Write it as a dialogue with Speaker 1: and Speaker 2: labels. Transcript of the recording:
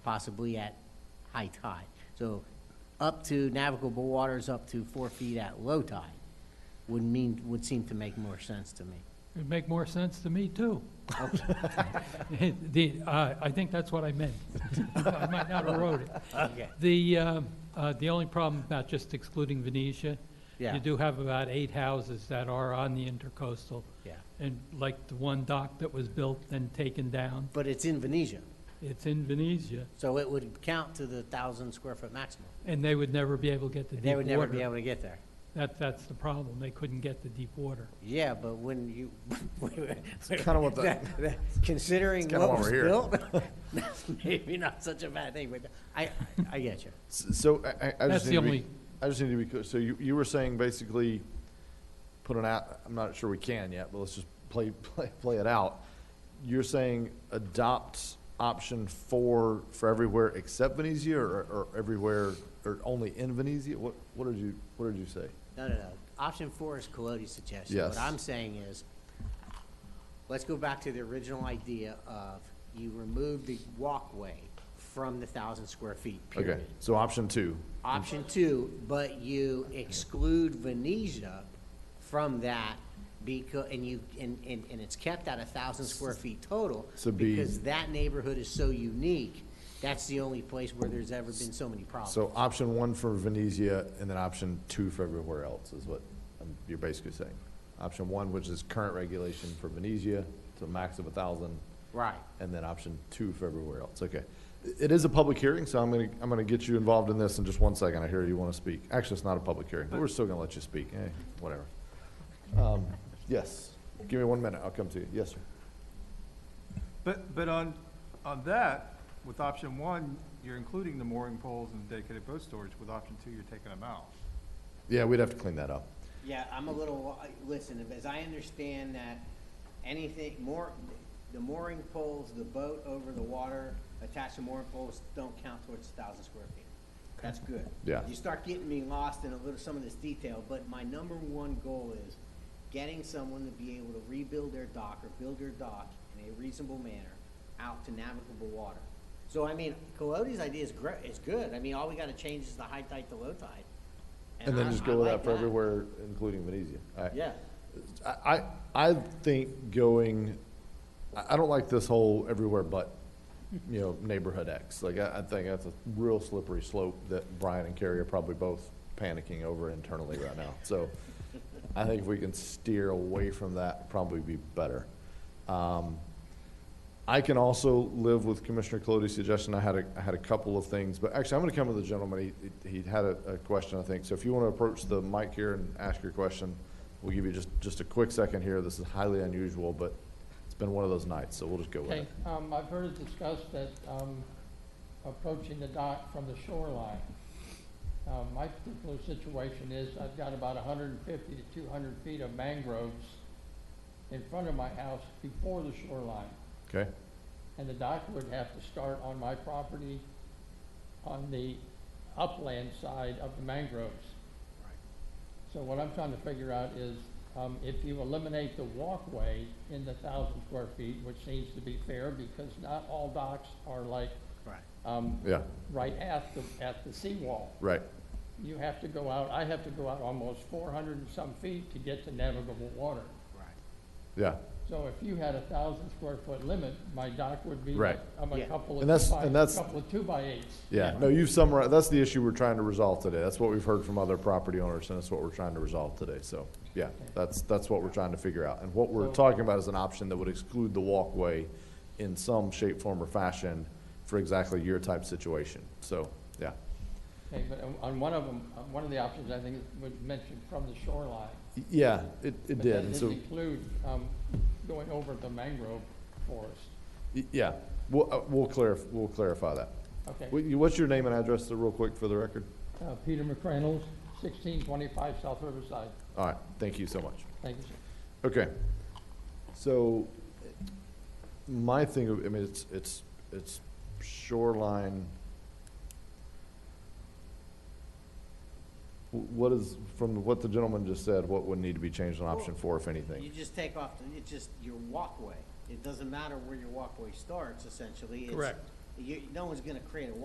Speaker 1: possibly at high tide. So up to navigable waters, up to four feet at low tide would mean, would seem to make more sense to me.
Speaker 2: It'd make more sense to me, too. The, uh, I think that's what I meant. I might not have wrote it.
Speaker 1: Okay.
Speaker 2: The, um, uh, the only problem about just excluding Venetia,
Speaker 1: Yeah.
Speaker 2: you do have about eight houses that are on the intercoastal,
Speaker 1: Yeah,
Speaker 2: and like the one dock that was built and taken down,
Speaker 1: but it's in Venetia,
Speaker 2: it's in Venetia,
Speaker 1: so it would count to the thousand square foot maximum.
Speaker 2: and they would never be able to get to deep
Speaker 1: They
Speaker 2: water.
Speaker 1: would never be able to get there.
Speaker 2: That, that's the problem, they couldn't get to deep water.
Speaker 1: Yeah, but when you.
Speaker 3: kinda what the-
Speaker 1: That- that- Considering
Speaker 3: kinda
Speaker 1: what
Speaker 3: why
Speaker 1: was
Speaker 3: we're
Speaker 1: built, that's maybe not such a bad thing, but I, I get you.
Speaker 3: S- So I- I, I
Speaker 2: That's
Speaker 3: just
Speaker 2: the
Speaker 3: need to
Speaker 2: only,
Speaker 3: be, I just need to be, clear. so you, you were saying basically put an out, I'm not sure we can yet, but let's just play, play, play it out. You're saying adopt option four for everywhere except Venezia or, or everywhere, or only in Venezia? What, what did you, what did you say?
Speaker 1: No, no, no. Option four is Colodey's suggestion.
Speaker 3: Yes.
Speaker 1: What I'm saying is, let's go back to the original idea of you remove the walkway from the thousand square feet,
Speaker 3: Okay,
Speaker 1: period.
Speaker 3: so option two,
Speaker 1: Option two, but you exclude Venetia from that because, and you, and, and, and it's kept at a thousand square feet total.
Speaker 3: So be-
Speaker 1: Because that neighborhood is so unique, that's the only place where there's ever been so many problems.
Speaker 3: so option one for Venezia and then option two for everywhere else is what um, you're basically saying. Option one, which is current regulation for Venezia to a max of a thousand.
Speaker 1: Right.
Speaker 3: and then option two for everywhere else, okay. It is a public hearing, so I'm gonna, I'm gonna get you involved in this in just one second, I hear you wanna speak. Actually, it's not a public hearing, but we're still gonna let you speak, eh, whatever. Um, Yes, give me one minute, I'll come to you, yes, sir.
Speaker 4: But, but on, on that, with option one, you're including the mooring poles and dedicated boat storage. With option two, you're taking them out.
Speaker 3: Yeah, we'd have to clean that up.
Speaker 1: Yeah, I'm a little, listen, as I understand that anything more, the mooring poles, the boat over the water, attached to mooring poles, don't count towards a thousand square feet. That's good.
Speaker 3: Yeah.
Speaker 1: You start getting me lost in a little, some of this detail, but my number one goal is getting someone to be able to rebuild their dock or build their dock in a reasonable manner out to navigable water. So I mean, Colodey's idea is great, is good. I mean, all we gotta change is the high tide to low tide.
Speaker 3: And then
Speaker 1: I-
Speaker 3: just
Speaker 1: I
Speaker 3: go with
Speaker 1: like
Speaker 3: that for everywhere, including Venezia, all right?
Speaker 1: Yeah.
Speaker 3: I, I I think going, I, I don't like this whole everywhere but, you know, neighborhood X. Like, I, I think that's a real slippery slope that Brian and Carrie are probably both panicking over internally right now. So I think if we can steer away from that, probably be better. Um, I can also live with Commissioner Colodey's suggestion. I had a, I had a couple of things, but actually, I'm gonna come to the gentleman. He, he had a, a question, I think. So if you wanna approach the mic here and ask your question, we'll give you just, just a quick second here. This is highly unusual, but it's been one of those nights, so we'll just go with
Speaker 5: Okay,
Speaker 3: it.
Speaker 5: um, I've heard it discussed that, um, approaching the dock from the shoreline. Um, my particular situation is I've got about hundred and fifty to two hundred feet of mangroves in front of my house before the shoreline.
Speaker 3: Okay?
Speaker 5: And the dock would have to start on my property on the upland side of the mangroves. So what I'm trying to figure out is, um, if you eliminate the walkway in the thousand square feet, which seems to be fair, because not all docks are like,
Speaker 1: Right.
Speaker 5: um,
Speaker 3: Yeah,
Speaker 5: right at the, at the seawall.
Speaker 3: right.
Speaker 5: You have to go out, I have to go out almost four hundred and some feet to get to navigable water.
Speaker 1: Right.
Speaker 3: Yeah.
Speaker 5: So if you had a thousand square foot limit, my dock would be
Speaker 3: Right.
Speaker 5: um, a
Speaker 1: Yeah.
Speaker 5: couple of
Speaker 3: And that's-
Speaker 5: two by,
Speaker 3: and that's-
Speaker 5: couple of two by eights.
Speaker 3: Yeah, no, you've summarized, that's the issue we're trying to resolve today. That's what we've heard from other property owners, and that's what we're trying to resolve today. So, yeah, that's, that's what we're trying to figure out. And what we're
Speaker 5: So-
Speaker 3: talking about is an option that would exclude the walkway in some shape, form, or fashion for exactly your type situation. So, yeah.
Speaker 5: Okay, but on- on one of them, on one of the options, I think, was mentioned from the shoreline.
Speaker 3: Y- Yeah, it, it
Speaker 5: But
Speaker 3: did,
Speaker 5: that
Speaker 3: and
Speaker 5: didn't
Speaker 3: so,
Speaker 5: include um, going over the mangrove forest.
Speaker 3: y- yeah, we'll, uh, we'll clarify, we'll clarify that.
Speaker 5: Okay.
Speaker 3: What- you- What's your name and address, uh, real quick, for the record?
Speaker 5: Uh, Peter McCrannles, 1625 South Riverside.
Speaker 3: All right, thank you so much.
Speaker 5: Thank you, sir.
Speaker 3: Okay. So my thing, I mean, it's, it's, it's shoreline. Wh- What is, from what the gentleman just said, what would need to be changed on option four, if
Speaker 1: You
Speaker 3: anything?
Speaker 1: just take off, the- it's just your walkway. It doesn't matter where your walkway starts essentially. It's-
Speaker 2: Correct.
Speaker 1: You, no one's gonna create a